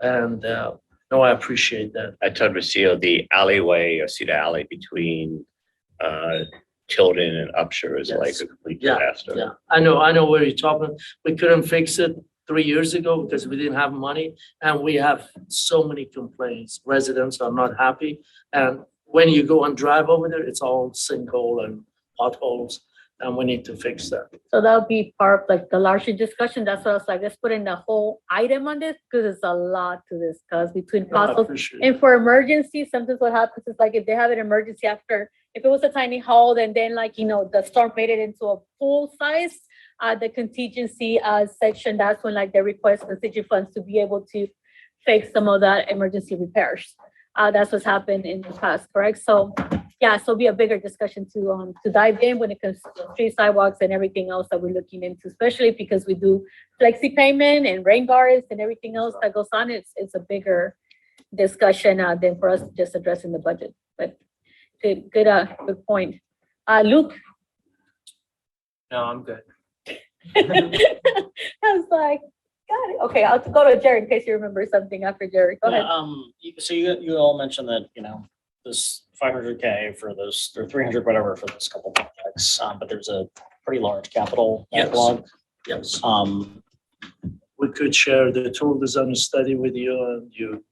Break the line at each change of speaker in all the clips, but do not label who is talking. And, uh, no, I appreciate that.
I told Rocio the alleyway or Cedar Alley between uh Tilden and Upshur is like
Yes.
a complete
Yeah,
disaster.
Yeah, I know, I know where you're talking. We couldn't fix it three years ago because we didn't have money. And we have so many complaints. Residents are not happy. And when you go and drive over there, it's all sinkhole and potholes. And we need to fix that.
So that'll be part of like the larger discussion. That's why I was like, let's put in a whole item on this because it's a lot to discuss between
No, I
possible.
appreciate it.
And for emergency, sometimes what happens is like if they have an emergency after, if it was a tiny hole, and then like, you know, the storm made it into a full size, uh, the contingency, uh, section, that's when like they request contingency funds to be able to fix some of that emergency repairs. Uh, that's what's happened in the past, correct? So, yeah, so be a bigger discussion to, um, to dive in when it comes to street sidewalks and everything else that we're looking into, especially because we do flexi payment and rain guards and everything else that goes on. It's, it's a bigger, discussion uh, than for us just addressing the budget, but good, good, uh, good point. Uh, Luke,
No, I'm good.
I was like, got it. Okay, I'll go to Jared in case you remember something after Jared. Go
Yeah,
ahead.
Um, you- so you, you all mentioned that, you know, this five hundred K for those, or three hundred, whatever, for this couple projects, um, but there's a pretty large capital
Yes.
backlog.
Yes,
Um,
we could share the tool design study with you and you,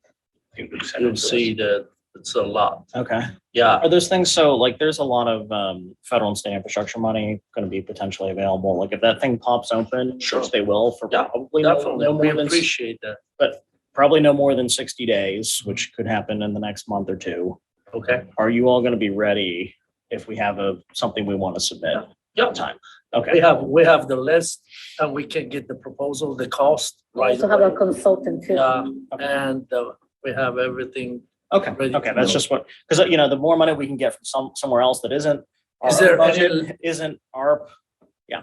You can send it
you'll
to us.
see that it's a lot.
okay.
Yeah,
Are those things, so like, there's a lot of, um, federal and state infrastructure money gonna be potentially available, like if that thing pops open,
Sure.
which they will for
Yeah,
probably no
definitely.
no
We
more than,
appreciate that.
probably no more than sixty days, which could happen in the next month or two.
Okay.
Are you all gonna be ready if we have a, something we wanna submit?
Yeah.
Time,
We
okay.
have, we have the list and we can get the proposal, the cost
We
right
Also have a
away.
consultant too.
Yeah,
Okay.
and uh, we have everything.
Okay,
ready
okay,
to
that's
go.
just what, because, you know, the more money we can get from some, somewhere else that isn't. our
Is
own
there any-
budget, Isn't our,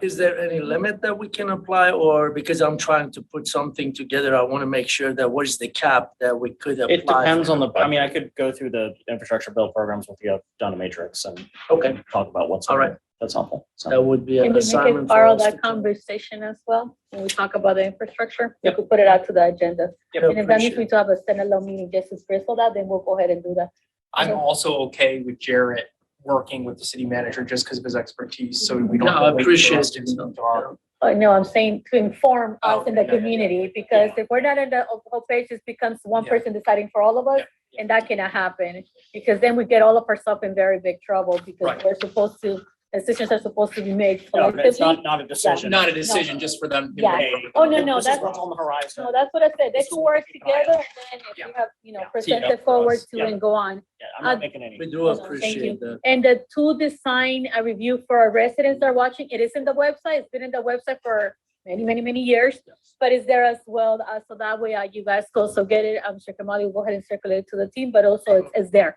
Is there any limit that we can apply or because I'm trying to put something together, I want to make sure that what is the cap that we could apply?
it depends on the, I mean, I could go through the infrastructure bill programs with you, done a matrix and
Okay,
talk about what's.
all right. Uh,
That's helpful. So-
That would be
Can we
an
make it
assignment. for
part of
us
that
to do.
conversation as well? When we talk about the infrastructure, we could put it out to the agenda.
Yep.
And if that means
Appreciate
we
it.
do have a standalone meeting just to bristle that, then we'll go ahead and do that.
I'm also okay with Jarrett working with the city manager just because of his expertise, so we don't.
No,
have
I
to wait for us
appreciate
to
it.
move to our-
But no, I'm saying to inform
Oh,
us in the
okay, yeah, yeah,
community, because
Yeah.
if we're not in the whole- whole page, it becomes one
Yeah.
person deciding for all of us.
Yeah, yeah.
And that cannot happen, because then we get all of ourselves in very big trouble, because
Right.
we're supposed to, decisions are supposed to be made
No, It's
collectively.
not, not a decision.
Not a decision, just for them.
Yeah. Oh, no, no,
This is
that's-
what's on the horizon.
No, that's what I said, they
This is
should
what
work
we can
together, and then if
Yeah.
you have, you know,
Yeah.
present
Yeah.
it forward to
Yeah.
and go on.
Yeah, I'm not
Uh,
making any.
We do
Hold on, thank you.
appreciate that.
And the tool design uh, review for our residents that are watching, it is in the website, it's been in the website for many, many, many years. But it's there as well, uh, so that way uh, you guys go, so get it, I'm sure Kamali will go ahead and circulate it to the team, but also it's, it's there.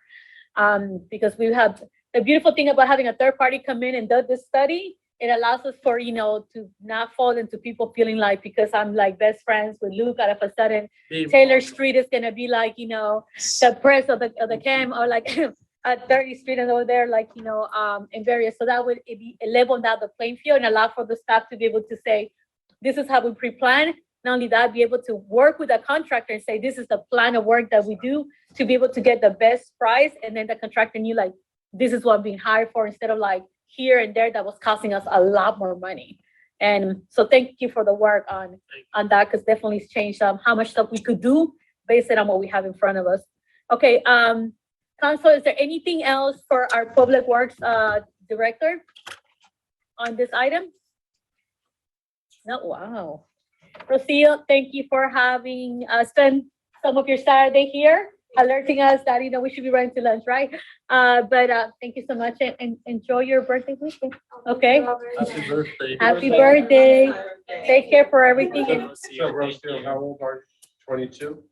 Um, because we have, the beautiful thing about having a third party come in and do this study, it allows us for, you know, to not fall into people feeling like, because I'm like best friends with Luke, out of a sudden,
Be-
Taylor Street is gonna be like, you know, the press of the, of the cam or like at thirty street and over there, like, you know, um, in various, so that would it be leveled out the playing field and allow for the staff to be able to say, this is how we pre-plan. Not only that, be able to work with a contractor and say, this is the plan of work that we do to be able to get the best price. And then the contractor knew like, this is what I'm being hired for instead of like here and there that was costing us a lot more money. And so thank you for the work on, on that, because definitely it's changed um, how much stuff we could do based on what we have in front of us. Okay, um, Council, is there anything else for our Public Works, uh, Director on this item? No, wow. Rocio, thank you for having, uh, spent some of your Saturday here, alerting us that, you know, we should be running to lunch, right? Uh, but, uh, thank you so much and, and enjoy your birthday weekend, okay?
Happy birthday.
Happy birthday. Take care for everything and
So Rosefield, how old are you? Twenty-two?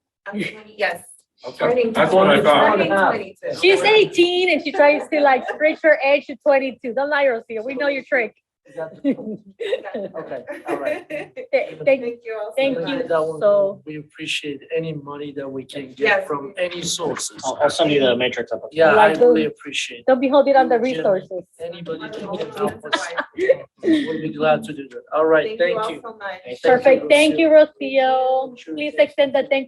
Yes.
Okay, That's what I thought.
Turning 22.
She's eighteen and she tries to like stretch her age to twenty-two. Don't lie, Rocio. We know your trick.
Okay, all right.
Th- Thank,
Thank you all. so
Thank
much.
you.
That one,
so-
We appreciate any money that we can get
Yes.
from any sources.
I'll, I'll send you the matrix up.
Yeah, I
Like the-
really appreciate it.
don't be holding on the resources.
Anybody that can help us,
Thank
we'll be glad to do that. All right,
you
thank
all
you.
so much.
Thank you,
Perfect. Thank
Rocio.
you, Rocio. Please extend the thank